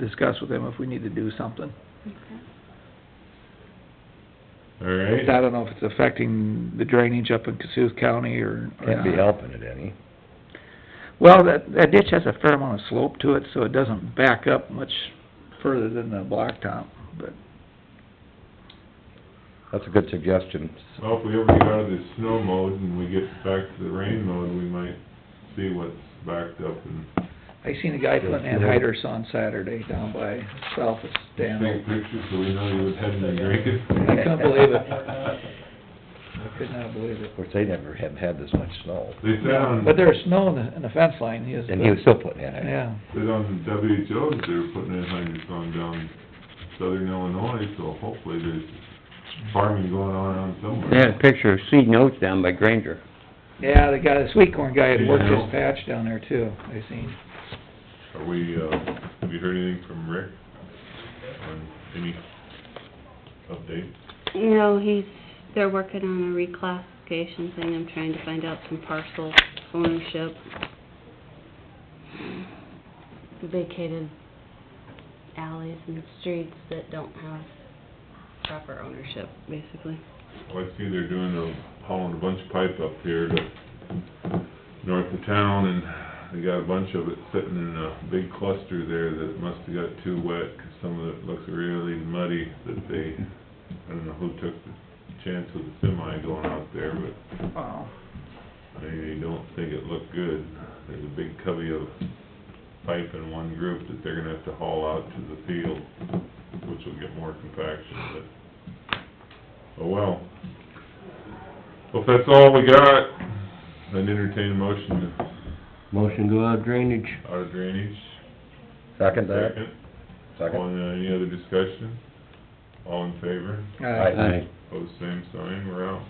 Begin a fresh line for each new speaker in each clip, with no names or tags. discuss with them if we need to do something.
All
I
right.
don't know if it's affecting the drainage up in Cassuth County or. or
Can't be
not.
helping it any.
Well, that, that ditch has a fair amount of slope to it, so it doesn't back up much further than the blacktop, but
That's a good suggestion.
Well, if we ever get out of this snow mode and we get back to the rain mode, we might see what's backed up and
I seen a guy putting anhydrous on Saturday down by south of
take
Stanhope.
pictures so we know you was heading to drink
I
it.
couldn't believe it. I could not believe it.
Of course, they never have had this much snow.
They said on,
But there was snow in the, in the fence line, he was.
And he was still putting in it.
Yeah,
said on WHO's, they were putting in hundreds on down southern Illinois, so hopefully there's farming going on around somewhere.
They had a picture of seed notes down by Granger.
yeah, the guy, the sweet corn guy had worked
Yeah.
his patch down there too, I seen.
Are we, uh, have you heard anything from Rick on any update?
You know, he's, they're working on a reclassification thing, I'm trying to find out some parcel ownership. Vacated alleys and streets that don't have proper ownership, basically.
Well, I see they're doing a, hauling a bunch of pipe up here to north of town, and they got a bunch of it sitting in a big cluster there that must have got too wet, 'cause some of it looks really muddy, that they, I don't know who took the chance with the semi going out there, but
Wow.
I don't think it looked good. There's a big cubby of pipe in one group that they're gonna have to haul out to the field, which will get more compaction, but, oh well. Well, if that's all we got, then entertain a motion
Motion to go out of drainage.
out of drainage.
Second that?
All
Second?
in, uh, any other discussion? All in favor?
Uh,
Aye.
Pose same sign, we're out.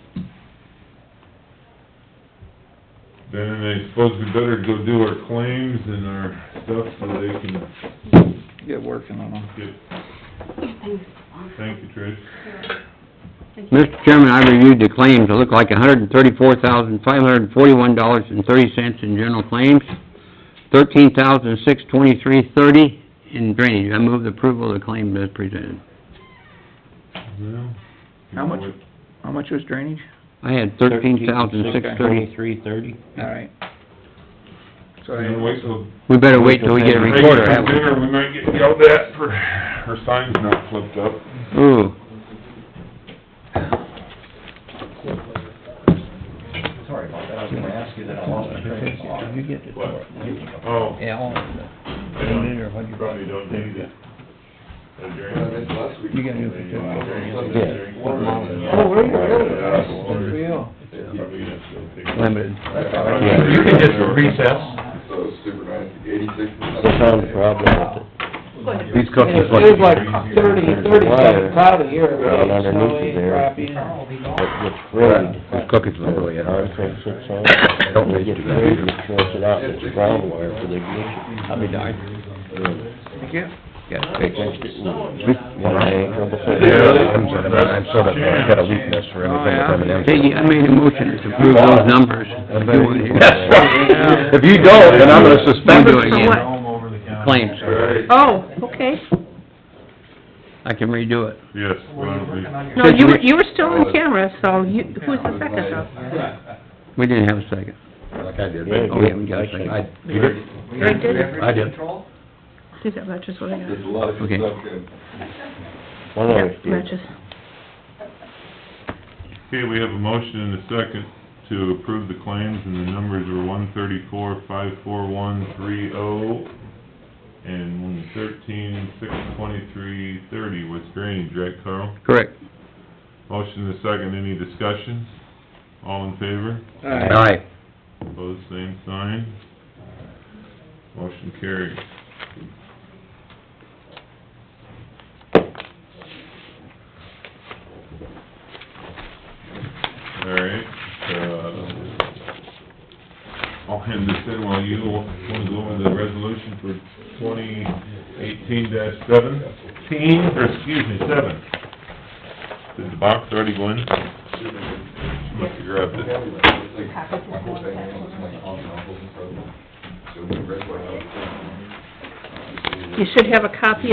Then I suppose we better go do our claims and our stuff so they can
get working on them.
get,
Thanks.
thank you, Trish.
Thank you.
Mr. Chairman, I reviewed the claims. It looked like hundred and thirty-four thousand, five hundred and forty-one dollars and thirty cents in general claims, thirteen thousand, six twenty-three, thirty in drainage. I move the approval of the claim as presented.
Well,
How much? How much was drainage?
I had thirteen thousand, six thirty.
Twenty-three thirty?
All right. So I-
And wait till.
We better wait till we get a recorder,
Right,
have we?
Dinner, we might get yelled at for, our sign's not flipped up.
Ooh.
Sorry about that, I was gonna ask you that, I lost my train of thought.
Did you get it?
What? Oh.
Yeah, I'll-
I
Dinner, what'd
don't,
you-
probably don't need it. A drink.
You got new
Yeah.
Oh, were you really?
Yeah.
Good for you.
Probably not.
Limited.
Yeah, you can just recess.
So Superman, eighty-six.
That's not a problem These cookies
It
look.
was like thirty, thirty-seven cloud a year,
Right
really,
underneath
snowy,
you there.
crappy.
It's really. These cookies look really hard. I don't need to. Wash it out, it's brown wire for the ignition.
I'll be darned.
Thank you.
Yeah, take it. One day.
Yeah.
I'm sort of, I'm sort of, I've got a weakness for everything with M and
Peggy, I made a motion to approve those numbers.
That's right. If you don't, then I'm gonna suspend
Numbers
you
for
again.
what? Claims.
Oh, okay.
I can redo it.
Yes, well, we,
No, you were, you were still on camera, so you, who's the second though?
We didn't have a second.
Like I did.
Yeah,
Oh, we haven't got a second.
I-
Greg did?
I did.
Geez, that matches what I got.
There's a lot of
Okay.
stuff in.
One of
Yep, matches.
okay, we have a motion and a second to approve the claims, and the numbers were one thirty-four, five four one, three oh, and one thirteen, six twenty-three, thirty was drainage, right, Carl?
Correct.
Motion and a second, any discussion? All in favor?
All right.
Aye.
Opposed, same sign. Motion carried. All right, uh, I'll hand this in while you wanna go over the resolution for twenty eighteen dash seventeen, or excuse me, seven. Did the box already go in? Must have grabbed it.
So we read what I was saying.
you should have a copy